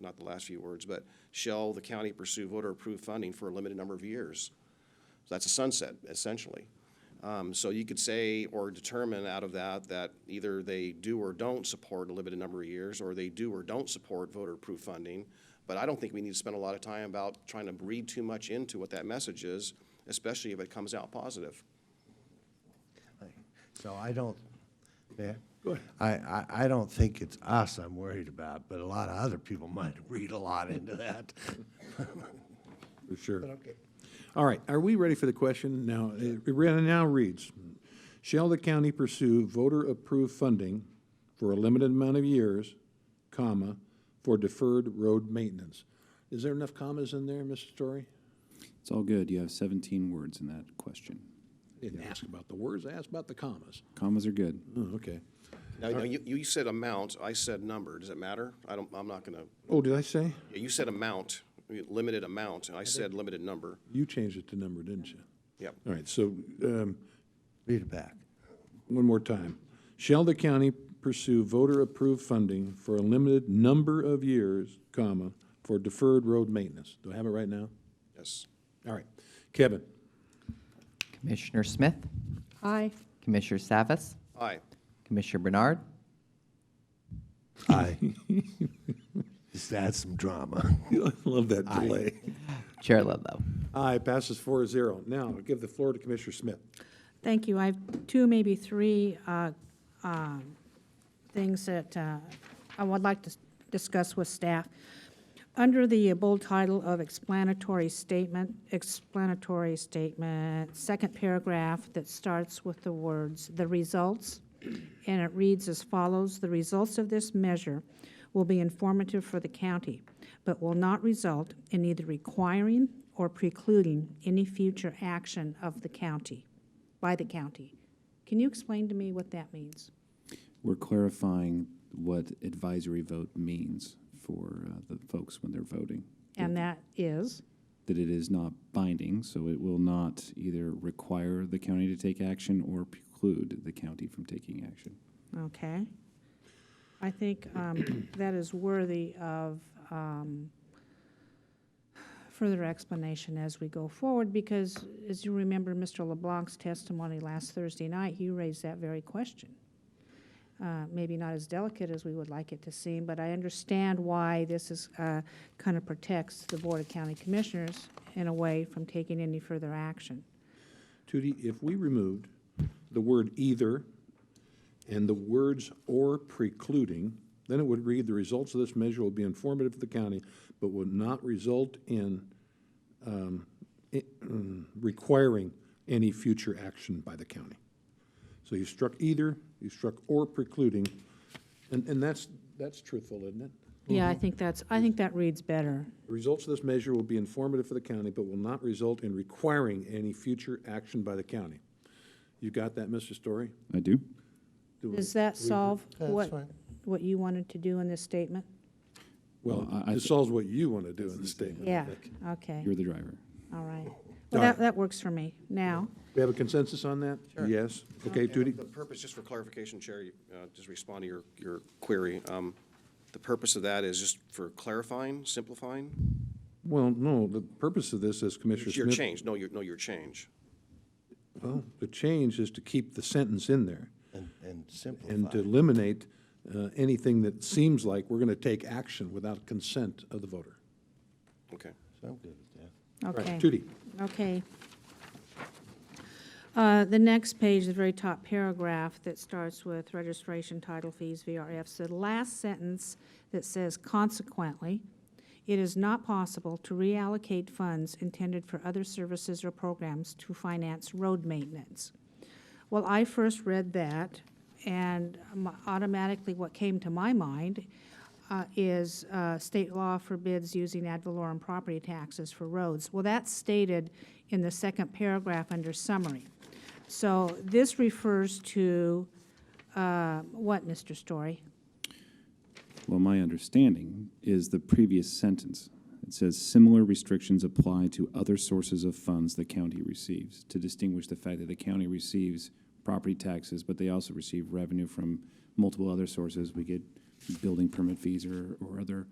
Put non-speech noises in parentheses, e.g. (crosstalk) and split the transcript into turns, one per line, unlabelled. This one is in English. not the last few words, but shall the county pursue voter approved funding for a limited number of years? So that's a sunset, essentially. Um, so you could say or determine out of that that either they do or don't support a limited number of years, or they do or don't support voter-approved funding. But I don't think we need to spend a lot of time about trying to read too much into what that message is, especially if it comes out positive.
So I don't, yeah. I, I, I don't think it's us I'm worried about, but a lot of other people (laughs) might read a lot into that.
For sure.
But okay.
All right, are we ready for the question? Now, it it re- now reads, shall the county pursue voter-approved funding for a limited amount of years, comma, for deferred road maintenance? Is there enough commas in there, Mr. Story?
It's all good. You have 17 words in that question.
Didn't ask about the words, ask about the commas.
Commas are good.
Oh, okay.
Now, now, you, you said amount, I said number. Does it matter? I don't, I'm not gonna,
Oh, did I say?
you said amount, limited amount, and I said limited number.
You changed it to number, didn't you?
Yep.
All right, so, um,
Read it back.
One more time. Shall the county pursue voter-approved funding for a limited number of years, comma, for deferred road maintenance? Do I have it right now?
Yes.
All right. Kevin?
Commissioner Smith?
Aye.
Commissioner Savas?
Aye.
Commissioner Bernard?
(laughs)
Aye. Just add some drama.
Love that delay.
Chair Ludlow?
Aye, passes four to zero. Now, I'll give the floor to Commissioner Smith.
Thank you. I have two, maybe three uh, um, things that uh, I would like to s- discuss with staff. Under the bold title of explanatory statement, explanatory statement, second paragraph that starts with the words, "The results," and it reads as follows, "The results of this measure will be informative for the county, but will not result in either requiring or precluding any future action of the county." by the county. Can you explain to me what that means?
We're clarifying what advisory vote means for uh, the folks when they're voting.
And that is,
That it is not binding, so it will not either require the county to take action or preclude the county from taking action.
okay. I think um, (clears throat) that is worthy of um, further explanation as we go forward, because as you remember, Mr. LeBlanc's testimony last Thursday night, you raised that very question. Uh, Maybe not as delicate as we would like it to seem, but I understand why this is, uh, kind of protects the Board of County Commissioners in a way from taking any further action.
Tootie, if we removed the word either and the words or precluding, then it would read, "The results of this measure will be informative to the county, but will not result in um, i- mm, requiring any future action by the county." So you struck either, you struck or precluding, and, and that's, that's truthful, isn't it?
Yeah, I think that's, I think that reads better.
The results of this measure will be informative for the county, but will not result in requiring any future action by the county. You got that, Mr. Story?
I do.
Do we-
Does that solve
That's
what,
fine.
what you wanted to do in this statement?
Well,
I- I
this
thi-
solves what you want to do in the statement. I
Yeah,
think.
okay,
You're the driver.
all right.
All right.
Well, that, that works for me. Now,
We have a consensus on that? Yes. Okay, Judy?
The purpose, just for clarification, Chair, you, uh, just respond to your, your query. Um, The purpose of that is just for clarifying, simplifying?
Well, no, the purpose of this, as Commissioner
Your
Smith
change, no, your, no, your change.
Well, the change is to keep the sentence in there
And, and
and to
simplify.
eliminate uh, anything that seems like we're going to take action without consent of the voter.
Okay.
So I'm good with that.
Right,
okay.
Judy?
Okay. Uh, The next page, the very top paragraph that starts with registration, title fees, VRFs, the last sentence that says consequently, it is not possible to reallocate funds intended for other services or programs to finance road maintenance. Well, I first read that, and um, automatically what came to my mind uh, is uh, state law forbids using ad valorem property taxes for roads. Well, that's stated in the second paragraph under summary. So this refers to uh, what, Mr. Story?
Well, my understanding is the previous sentence. It says similar restrictions apply to other sources of funds the county receives, to distinguish the fact that the county receives property taxes, but they also receive revenue from multiple other sources. We get building permit fees or, or other